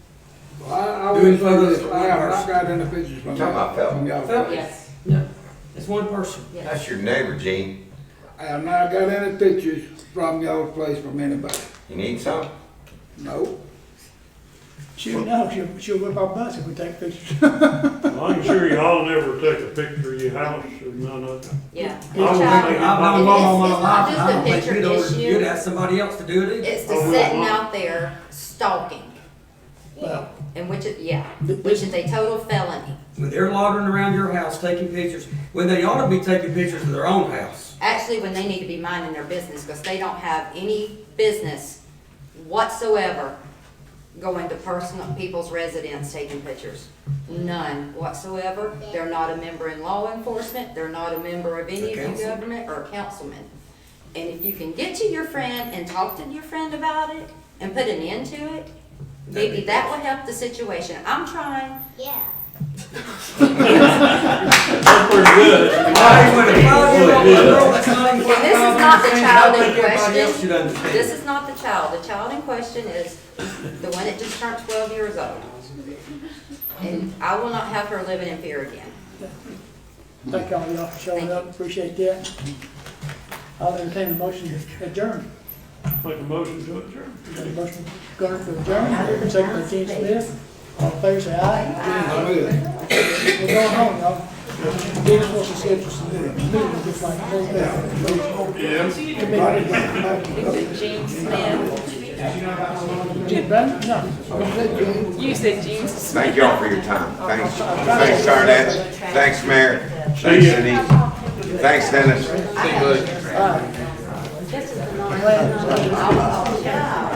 doing further I got, I than. got in the pictures from Talking about Phelps. y'all. Phelps? Yes, No, it's one person. yes. That's your neighbor, Gene. I have not got any pictures from y'all's place from anybody. You need some? No. She'll know, she'll, she'll whip our butts if we take pictures. Well, I'm sure y'all never take a picture of your house or none of that. Yeah. I don't Child- think it I- is- I'm It's wrong not just a picture You'd issue, ask somebody else to do it. it's the Oh, we sitting want- out there stalking. Well- And which is, yeah, Th- which is a total felony. When they're loitering around your house taking pictures, when they ought to be taking pictures of their own house. Actually, when they need to be minding their business, because they don't have any business whatsoever going to personal, people's residence taking pictures. None whatsoever. They're not a member in law enforcement, they're not a member of any of The your council. government or councilman. And if you can get to your friend and talk to your friend about it and put an end to it, maybe that would help the situation. I'm trying. Yeah. That's pretty good. Hey, when a five-year-old girl that's not even And this is five not the understands, child I think in everybody else should question. understand. This is not the child. The child in question is the one that just turned twelve years old. And I will not have her living in fear again. Thank all y'all for showing up, appreciate that. I'll entertain a motion to adjourn. Make a motion to adjourn. Got a motion, Gunner for adjourn, second by Gene Smith. All in favor, say aye. We're going home, y'all. Dennis wants to schedule some meetings, just like, Gene Smith. Gene, Brandon, no. You said Gene Thank Smith. y'all for your time. Thanks, thanks, Arnett. Thanks, Mayor. Thanks, ya. Denise. Thanks, Dennis. This is the non-child.